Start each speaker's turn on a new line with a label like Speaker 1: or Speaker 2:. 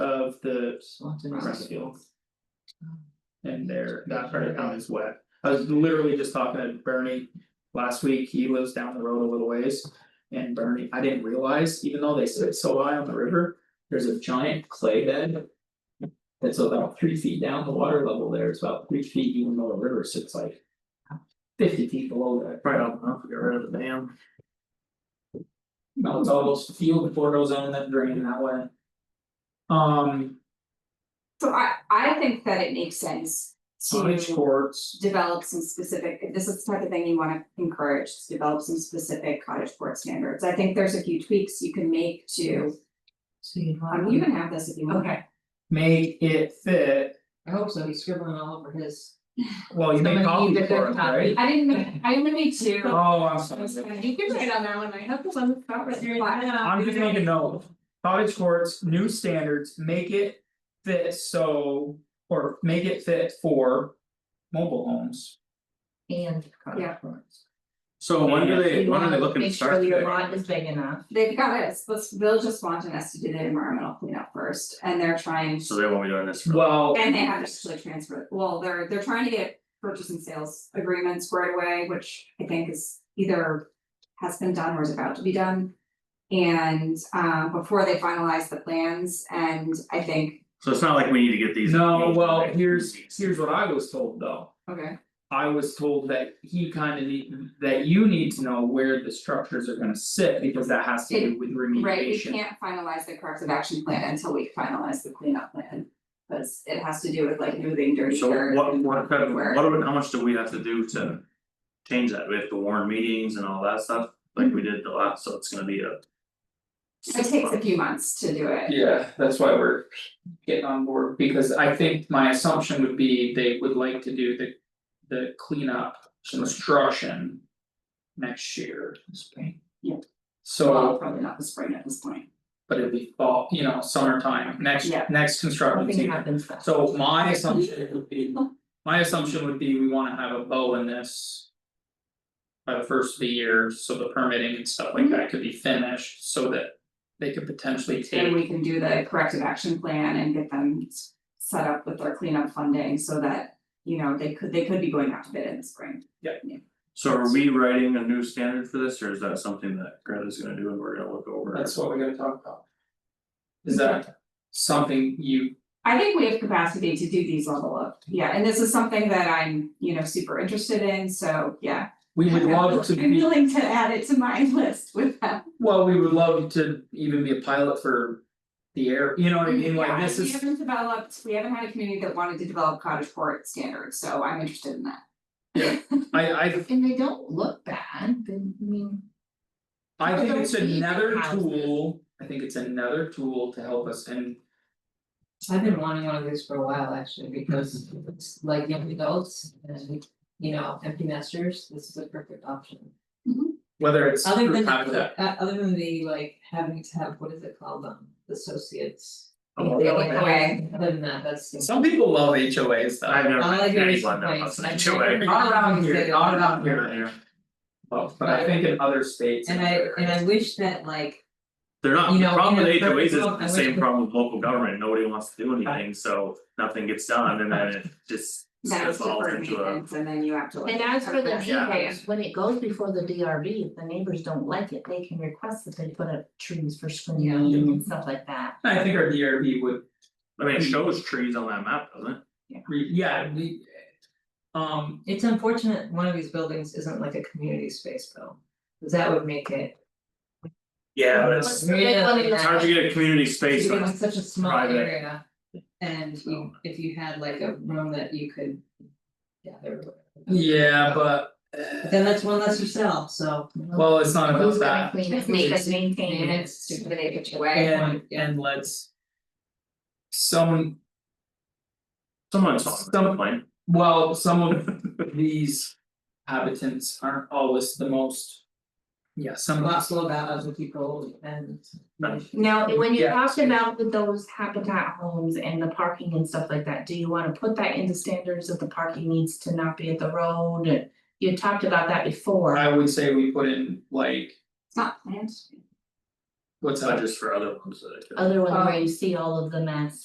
Speaker 1: of the Rescue. Um, And there, that part of town is wet. I was literally just talking to Bernie last week, he lives down the road a little ways. And Bernie, I didn't realize, even though they sit so high on the river, there's a giant clay bed. That's about three feet down the water level there, it's about three feet, even though the river sits like. Fifty feet below that.
Speaker 2: Probably don't know if we got rid of the dam.
Speaker 1: No, it's all those field before it goes in that drain that way. Um,
Speaker 3: So I I think that it makes sense
Speaker 1: cottage
Speaker 3: to
Speaker 1: courts,
Speaker 3: develop some specific, if this is the type of thing you wanna encourage, is develop some specific cottage court standards. I think there's a few tweaks you can make to,
Speaker 4: So you'd
Speaker 3: um,
Speaker 4: want,
Speaker 3: you can have this if you want.
Speaker 4: okay,
Speaker 1: make it fit,
Speaker 4: I hope so, he's scribbling all over his.
Speaker 1: well, you make
Speaker 4: Somebody
Speaker 1: coffee
Speaker 4: needs a
Speaker 1: for
Speaker 4: good
Speaker 1: it, right?
Speaker 3: I didn't make, I only made two.
Speaker 1: Oh, I'm
Speaker 3: I was
Speaker 1: sorry,
Speaker 3: gonna-
Speaker 4: You can write on that one, I have the one that's got right there.
Speaker 1: I'm just making note, cottage courts, new standards, make it fit so, or make it fit for. Mobile homes.
Speaker 4: And.
Speaker 3: Yeah.
Speaker 2: So when do they,
Speaker 4: You
Speaker 2: when are they
Speaker 4: wanna
Speaker 2: looking to start?
Speaker 4: Make sure your
Speaker 2: today?
Speaker 4: lot is big enough.
Speaker 3: They've got us, let's, they'll just wanting us to do the environmental cleanup first, and they're trying to.
Speaker 2: So they won't be doing this for.
Speaker 1: Well,
Speaker 3: And they have to actually transfer, well, they're they're trying to get purchase and sales agreements right away, which I think is either. Has been done or is about to be done. And um before they finalize the plans and I think,
Speaker 2: So it's not like we need to get these.
Speaker 1: no, well, here's, here's what I was told though.
Speaker 3: okay,
Speaker 1: I was told that he kinda need, that you need to know where the structures are gonna sit, because that has to do with remediation.
Speaker 3: right, we can't finalize the corrective action plan until we finalize the cleanup plan. Because it has to do with like moving dirty
Speaker 2: So
Speaker 3: dirt
Speaker 2: what
Speaker 3: and
Speaker 2: what kind of,
Speaker 3: where-
Speaker 2: what do we- how much do we have to do to? Change that, we have to warn meetings and all that stuff, like we did the last, so it's gonna be a.
Speaker 3: It takes a few months to do it,
Speaker 1: Yeah, that's why we're getting on board, because I think my assumption would be they would like to do the. The cleanup construction. Next year,
Speaker 4: Spring.
Speaker 3: well,
Speaker 1: so,
Speaker 3: probably not the spring at this point,
Speaker 1: but it'd be fall, you know, summertime, next,
Speaker 3: Yeah.
Speaker 1: next construction
Speaker 4: Nothing
Speaker 1: season.
Speaker 4: happens fast.
Speaker 1: So my assumption would be, my assumption would be we wanna have a bow in this. By the first of the year, so the permitting and stuff like that could be finished, so that they could potentially
Speaker 3: and
Speaker 1: take,
Speaker 3: we can do the corrective action plan and get them s- set up with their cleanup funding so that. You know, they could, they could be going out to bid in the spring.
Speaker 2: So are we writing a new standard for this, or is that something that Greta's gonna do and we're gonna look over?
Speaker 1: that's what we're gonna talk about. Is that something you,
Speaker 3: I think we have capacity to do these level of, yeah, and this is something that I'm, you know, super interested in, so yeah.
Speaker 1: we would love to
Speaker 3: I'm
Speaker 1: be,
Speaker 3: willing to add it to my list with them.
Speaker 1: well, we would love to even be a pilot for. The air, you know what I mean, like this
Speaker 3: Yeah, we
Speaker 1: is,
Speaker 3: haven't developed, we haven't had a community that wanted to develop cottage court standards, so I'm interested in that.
Speaker 1: I I
Speaker 4: And they don't look bad, they- I mean.
Speaker 1: I think it's
Speaker 4: Those people
Speaker 1: another
Speaker 4: houses.
Speaker 1: tool, I think it's another tool to help us and
Speaker 4: I've been wanting one of these for a while, actually, because it's like young adults and, you know, empty nesters, this is a perfect option.
Speaker 1: whether it's
Speaker 4: Other
Speaker 1: through
Speaker 4: than,
Speaker 1: habitat.
Speaker 4: uh, other than the like having to have, what is it called, um, associates.
Speaker 2: Oh,
Speaker 4: They
Speaker 2: yeah.
Speaker 4: like,
Speaker 3: yeah.
Speaker 4: okay, Other than that, that's. the-
Speaker 1: Some people love HOAs though.
Speaker 2: I've never
Speaker 4: All I
Speaker 2: met
Speaker 4: do is
Speaker 2: anyone that
Speaker 4: complain.
Speaker 2: was
Speaker 4: I've
Speaker 2: an HOA.
Speaker 4: never-
Speaker 1: Not around here, not around here.
Speaker 2: Yeah, yeah.
Speaker 1: Well, but I think in other states.
Speaker 4: And I, and I wish that like,
Speaker 2: They're not,
Speaker 4: You
Speaker 2: the
Speaker 4: know,
Speaker 2: problem
Speaker 4: in a
Speaker 2: with HOAs is
Speaker 4: perfect world, I
Speaker 2: the
Speaker 4: wish
Speaker 2: same
Speaker 4: we-
Speaker 2: problem with local government, nobody wants to do anything, so nothing gets done and then it just.
Speaker 3: That was
Speaker 2: spitballs
Speaker 3: deferred
Speaker 2: into a-
Speaker 3: maintenance, and then you have to like.
Speaker 5: And as for the
Speaker 3: Okay.
Speaker 2: Yeah.
Speaker 5: neighbors, when it goes before the DRB, if the neighbors don't like it, they can request that they put up trees for screening and stuff like that.
Speaker 1: I think our DRB would,
Speaker 2: I mean, it shows trees on that map, doesn't it?
Speaker 1: re- yeah, we. Um,
Speaker 4: it's unfortunate one of these buildings isn't like a community space though, 'cause that would make it.
Speaker 2: Yeah, but
Speaker 5: What's
Speaker 2: it's
Speaker 5: the big one in
Speaker 2: it's hard to get a community space,
Speaker 4: You're
Speaker 2: when
Speaker 4: in
Speaker 2: it's-
Speaker 4: such a small
Speaker 2: private.
Speaker 4: area, and you, if you had like a room that you could. gather.
Speaker 1: yeah, but.
Speaker 4: But then that's one less yourself, so.
Speaker 1: Well, it's not about
Speaker 5: Who's gonna
Speaker 1: that,
Speaker 5: clean it,
Speaker 3: Make
Speaker 5: make
Speaker 3: us
Speaker 5: us maintain
Speaker 4: maintain
Speaker 5: it,
Speaker 4: it.
Speaker 5: stupid neighbors away.
Speaker 1: and and let's. Some,
Speaker 2: someone's on the
Speaker 1: Some-
Speaker 2: plane.
Speaker 1: well, some of these habitants aren't always the most. Yeah, some of
Speaker 4: Lots of about other people and.
Speaker 2: Right.
Speaker 5: Now, when you
Speaker 1: Yeah.
Speaker 5: talked about with those habitat homes and the parking and stuff like that, do you wanna put that into standards that the parking needs to not be at the road? And You talked about that before,
Speaker 1: I would say we put in like,
Speaker 3: It's not planned.
Speaker 1: what's
Speaker 2: It's not
Speaker 1: that,
Speaker 2: just for other ones that I could.
Speaker 5: other one where
Speaker 3: Um,
Speaker 5: you see all of the mess.